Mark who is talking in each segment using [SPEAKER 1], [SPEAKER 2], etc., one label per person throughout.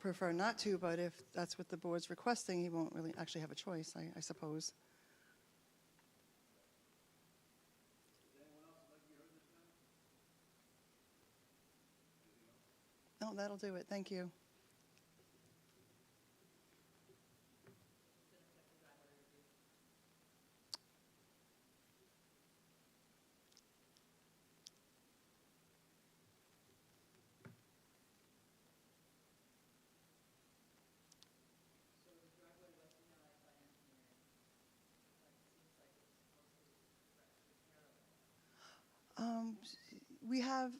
[SPEAKER 1] prefer not to, but if that's what the board's requesting, he won't really actually have a choice, I, I suppose. No, that'll do it. Thank you. Um, we have.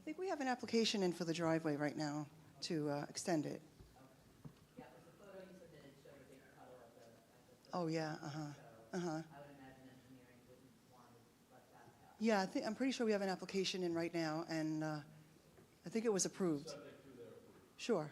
[SPEAKER 1] I think we have an application in for the driveway right now to uh, extend it. Oh, yeah, uh-huh, uh-huh. Yeah, I think, I'm pretty sure we have an application in right now, and uh, I think it was approved. Sure.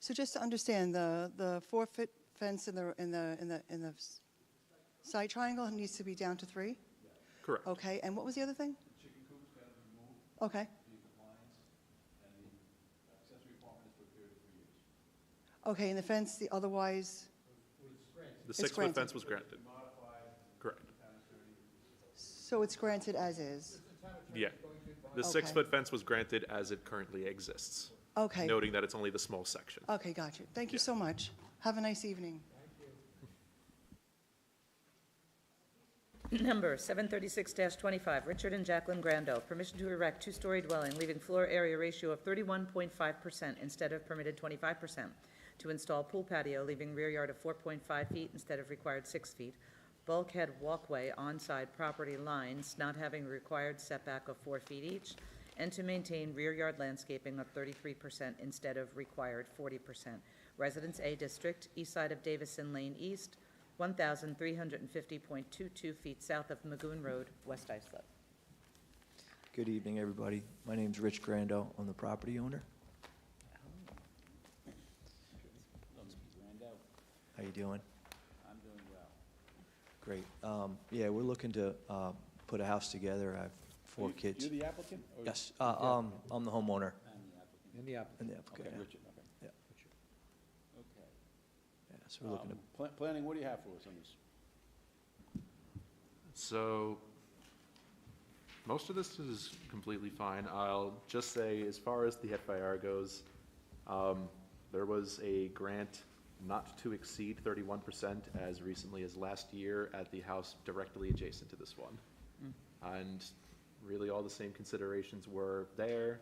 [SPEAKER 1] So just to understand, the, the four-foot fence in the, in the, in the, in the s- side triangle needs to be down to three?
[SPEAKER 2] Correct.
[SPEAKER 1] Okay, and what was the other thing? Okay. Okay, and the fence, the otherwise,
[SPEAKER 2] The six-foot
[SPEAKER 1] granted.
[SPEAKER 2] fence was granted. Correct.
[SPEAKER 1] so it's granted as is?
[SPEAKER 2] Yeah. The
[SPEAKER 1] Okay.
[SPEAKER 2] six-foot fence was granted as it currently exists,
[SPEAKER 1] Okay.
[SPEAKER 2] noting that it's only the small section.
[SPEAKER 1] Okay, got you. Thank you
[SPEAKER 2] Yeah.
[SPEAKER 1] so much. Have a nice evening.
[SPEAKER 3] Number 736-25, Richard and Jacqueline Grando, permission to erect two-story dwelling, leaving floor area ratio of 31.5% instead of permitted 25%, to install pool patio, leaving rear yard of 4.5 feet instead of required 6 feet, bulkhead walkway on-side property lines not having required setback of 4 feet each, and to maintain rear yard landscaping of 33% instead of required 40%. Residence A District, east side of Davison Lane East, 1,350.22 feet south of Magoon Road, West Islip.
[SPEAKER 4] Good evening, everybody. My name's Rich Grando. I'm the property owner. How you doing? I'm doing well. Great. Um, Yeah, we're looking to uh, put a house together. I have four
[SPEAKER 5] You-
[SPEAKER 4] kids.
[SPEAKER 5] You're the applicant? or-
[SPEAKER 4] Yes, uh, um, I'm the homeowner.
[SPEAKER 5] And the applicant?
[SPEAKER 4] And the applicant,
[SPEAKER 5] Okay,
[SPEAKER 4] yeah.
[SPEAKER 5] Richard, okay.
[SPEAKER 4] Yeah.
[SPEAKER 5] Richard. Okay.
[SPEAKER 4] Yeah, So we're looking to,
[SPEAKER 5] Um, pla- Planning, what do you have for us on this?
[SPEAKER 2] So most of this is completely fine. I'll just say, as far as the FAR goes, um, there was a grant not to exceed thirty-one percent as recently as last year at the house directly adjacent to this one. And really, all the same considerations were there.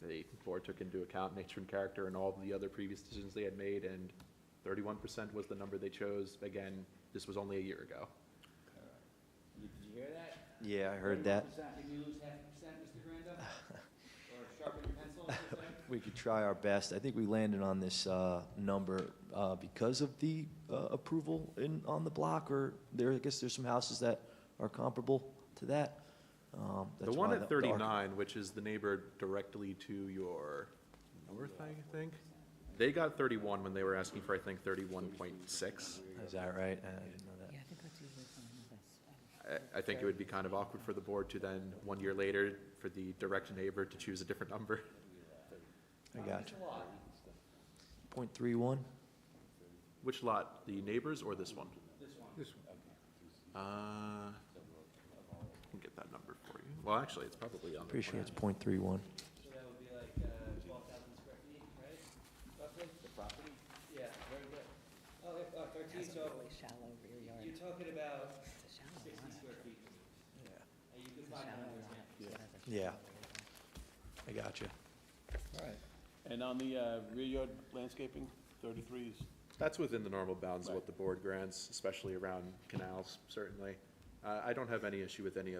[SPEAKER 2] The board took into account nature and character and all the other previous decisions they had made, and thirty-one percent was the number they chose. Again, this was only a year ago.
[SPEAKER 6] Did you hear that?
[SPEAKER 4] yeah, I heard that.
[SPEAKER 6] 31%. Did you lose half a percent, Mr. Granda? Or sharpen your pencil, as they say?
[SPEAKER 4] We could try our best. I think we landed on this uh, number uh, because of the uh, approval in, on the block, or there, I guess there's some houses that are comparable to that. Um,
[SPEAKER 2] The
[SPEAKER 4] that's
[SPEAKER 2] one
[SPEAKER 4] why
[SPEAKER 2] at
[SPEAKER 4] the arch-
[SPEAKER 2] thirty-nine, which is the neighbor directly to your north, I think, they got thirty-one when they were asking for, I think, thirty-one point six.
[SPEAKER 4] Is that right? Uh, I didn't know that.
[SPEAKER 3] I think that's usually fine with us.
[SPEAKER 2] I, I think it would be kind of awkward for the board to then, one year later, for the direct neighbor to choose a different number.
[SPEAKER 4] I got you. Point three one?
[SPEAKER 2] Which lot, the neighbors or this one? This one. Uh, I can get that number for you. Well, actually, it's probably on the
[SPEAKER 4] Pretty sure
[SPEAKER 2] plan.
[SPEAKER 4] it's point three one.
[SPEAKER 6] So that would be like, uh, twelve thousand square feet, right? Roughly? The property? Yeah, very good. Oh, if- uh, thirteen, so
[SPEAKER 3] shallow rear yard,
[SPEAKER 6] you're talking about
[SPEAKER 3] it's a shallow
[SPEAKER 6] sixty square feet. Yeah. And you could find another example.
[SPEAKER 4] Yeah. I got you.
[SPEAKER 5] And on the uh, rear yard landscaping, 33 is,
[SPEAKER 2] That's within the normal bounds of
[SPEAKER 5] Right.
[SPEAKER 2] what the board grants, especially around canals, certainly. Uh, I don't have any issue with any of